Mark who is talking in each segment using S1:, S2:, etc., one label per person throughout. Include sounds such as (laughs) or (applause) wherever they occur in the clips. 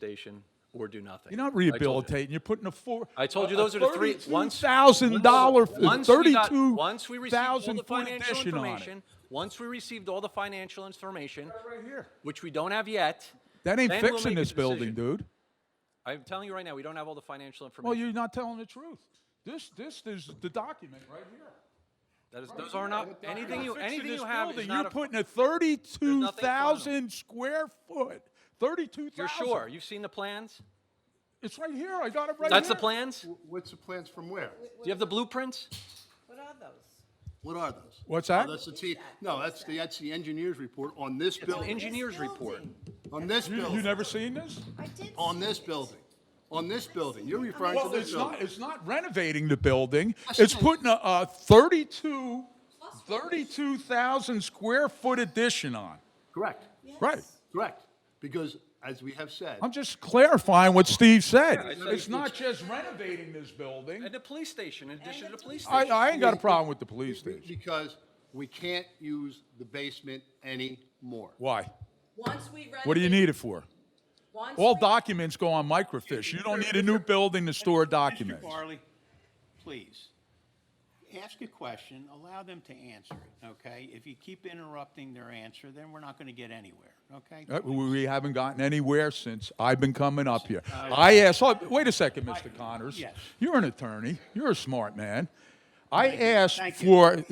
S1: station or do nothing.
S2: You're not
S1: I told you.
S2: rehabilitating. You're putting a four.
S1: I told you those are the three- once-
S2: thousand dollar, uh,
S1: Once we got-
S2: thirty-two
S1: Once we received all
S2: thousand
S1: the
S2: foot
S1: financial
S2: addition on it.
S1: information, once we received all the financial information,
S2: Right here.
S1: which we don't have yet.
S2: That ain't
S1: then we'll
S2: fixing
S1: make a
S2: this building,
S1: decision.
S2: dude.
S1: I'm telling you right now, we don't have all the financial
S2: Well,
S1: information.
S2: you're not telling the truth. This, this is the document right here.
S1: That is, those are not, anything you,
S2: You're fixing
S1: anything
S2: this
S1: you have is
S2: building.
S1: not
S2: You're
S1: a,
S2: putting a thirty-two
S1: There's
S2: thousand square foot, thirty-two thousand.
S1: you're sure? You've seen the plans?
S2: It's right here. I got it right
S1: That's the
S2: here.
S1: plans? Do
S3: What's the plans from where?
S1: you have the blueprints?
S4: What are those?
S3: What are those?
S2: What's that?
S3: Oh, That's the T, no, that's the, that's the engineer's report on this
S1: It's an
S3: building,
S1: engineer's report.
S3: on this
S2: You, you
S3: building,
S2: never seen this?
S4: I did.
S3: on
S4: see
S3: this
S4: it.
S3: building, on this building. You're referring to
S2: Well,
S3: this
S2: it's not,
S3: building.
S2: it's not renovating the building.
S3: Yes, it
S2: It's
S3: is.
S2: putting a, a 32 32,000 square foot addition on.
S3: Correct,
S2: Right.
S4: Yes.
S3: correct. Because as we have said,
S2: I'm just clarifying what Steve said.
S1: I said
S2: It's not just renovating this building.
S1: And the police station, in addition to the police
S2: I,
S1: station.
S2: I ain't got a problem with the police station.
S3: because we can't use the basement anymore.
S2: Why?
S4: Once we renovate.
S2: What do you need it for?
S4: once
S2: All
S4: we-
S2: documents go on microfiche. You don't need a new building to store
S5: Mr.
S2: documents.
S5: Barley, please, ask a question, allow them to answer it, okay? If you keep interrupting their answer, then we're not going to get anywhere, okay?
S2: Uh, We we haven't gotten anywhere since I've been coming up here. I asked, oh, wait a second, Mr. Connors.
S5: Uh, Yes.
S2: You're an attorney. You're a smart man. I asked
S5: Thank you.
S2: for,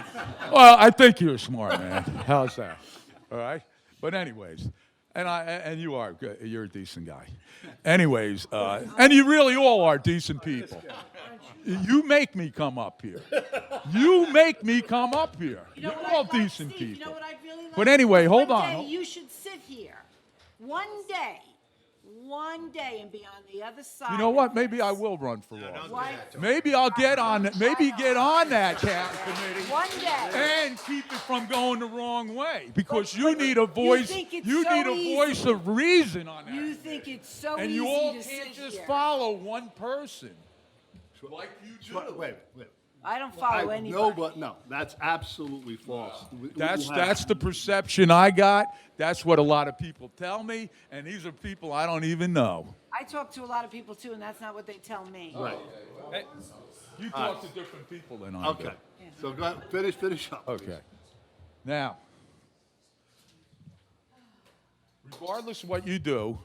S2: (laughs) well, I think you're a smart man. How's that? All right? But anyways, and I, and you are, good. you're a decent guy. Anyways, uh, and you really all are decent people. You make me come up here. You make me come up here.
S4: You know
S2: You're
S4: what I'd
S2: all
S4: like,
S2: decent
S4: Steve? You know
S2: people.
S4: what I'd really like?
S2: But anyway, hold
S4: One
S2: on.
S4: day you should sit here, one day, one day and be on the other side.
S2: You know what?
S4: of
S2: Maybe
S4: this.
S2: I will run for office.
S4: Why-
S2: Maybe I'll get on, maybe get on that cap committee
S4: One day.
S2: and keep it from going the wrong way because you need a voice,
S4: think it's
S2: you
S4: so
S2: need a
S4: easy.
S2: voice of reason on
S4: You
S2: that.
S4: think it's so
S2: And
S4: easy
S2: you all
S4: to sit
S2: can't just
S4: here.
S2: follow one person. Like you
S3: Wait,
S2: do.
S3: wait, wait.
S4: I don't
S3: I-
S4: follow Oh, anybody.
S3: No, but, no, that's absolutely false. We- we
S2: That's,
S3: have-
S2: that's the perception I got. That's what a lot of people tell me. And these are people I don't even know.
S4: I talk to a lot of people too, and that's not what they tell me.
S3: Right,
S2: You talk to different people than I do.
S3: okay. So go ahead, finish, finish up. please.
S2: Okay. Now, regardless of what you do,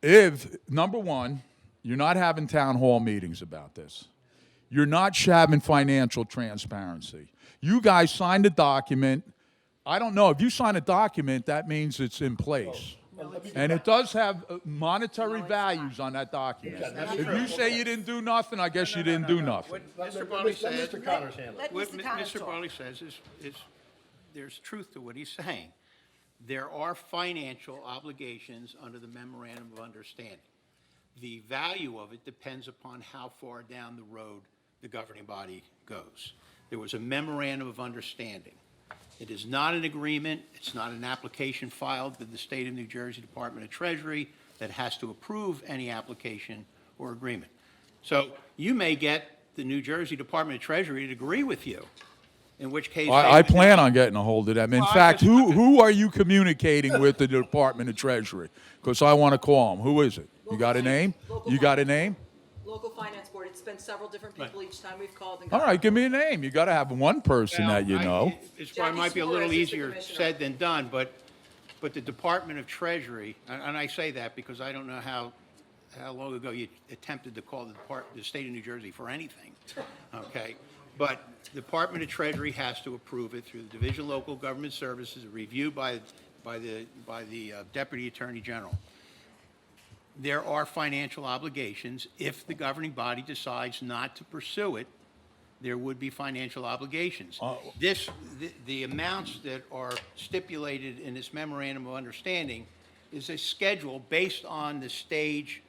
S2: if, number one, you're not having town hall meetings about this, you're not sh- having financial transparency. You guys signed a document. I don't know. If you sign a document, that means it's in place. And it does have uh, monetary values on that document. If you say you didn't do nothing, I guess you didn't do nothing.
S5: What Mr. Barley says,
S4: Let
S5: what
S4: Mr.
S5: Mi-
S4: Connors
S5: Mr.
S4: talk.
S5: Barley says is, is, there's truth to what he's saying. There are financial obligations under the memorandum of understanding. The value of it depends upon how far down the road the governing body goes. There was a memorandum of understanding. It is not an agreement, it's not an application filed with the State of New Jersey Department of Treasury that has to approve any application or agreement. So you may get the New Jersey Department of Treasury to agree with you, in which case. they
S2: I, I
S5: would-
S2: plan on getting a hold of them. In
S5: Well, I
S2: fact,
S5: just-
S2: who, who are you communicating with the Department of Treasury? Because I want to call them. Who is it? You got a name? You got a name?
S6: Local Finance Board, it's been several different people each time we've called and
S2: All
S6: got.
S2: right, give me a name. You got to have one person
S5: Well,
S2: that you
S5: I-
S2: know.
S5: It's probably
S6: Jackie
S5: might be a
S6: Suarez
S5: little
S6: is the
S5: easier
S6: commissioner.
S5: said than done, but, but the Department of Treasury, and, and I say that because I don't know how, how long ago you attempted to call the Depart, the state of New Jersey for anything, okay? But Department of Treasury has to approve it through the Division of Local Government Services, reviewed by, by the, by the uh, Deputy Attorney General there are financial obligations. If the governing body decides not to pursue it, there would be financial obligations.
S2: Uh,
S5: This, the, the amounts that are stipulated in this memorandum of understanding is a schedule based on the stage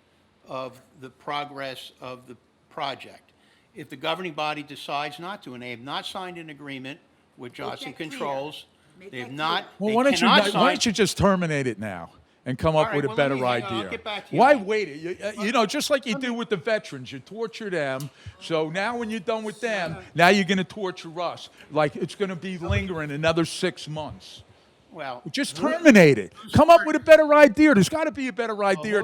S5: of the progress of the project. If the governing body decides not to, and they have not signed an agreement with Johnson
S4: that clear.
S5: Controls,
S4: Make
S5: they
S4: that
S5: have
S4: clear.
S5: not,
S2: Well,
S5: they
S2: why don't you,
S5: cannot
S2: not-
S5: sign-
S2: why don't you just terminate it now and come
S5: All
S2: up
S5: right,
S2: with a
S5: well, let
S2: better
S5: me hang on.
S2: idea?
S5: I'll get back to you.
S2: Why wait? You, uh, you- you know, just like you do with the veterans, you torture them. So now when you're done with them, now you're going to torture us. Like it's going to be lingering another six months.
S5: Well.
S2: Just terminate it. Come up with a better idea. There's got to be a better idea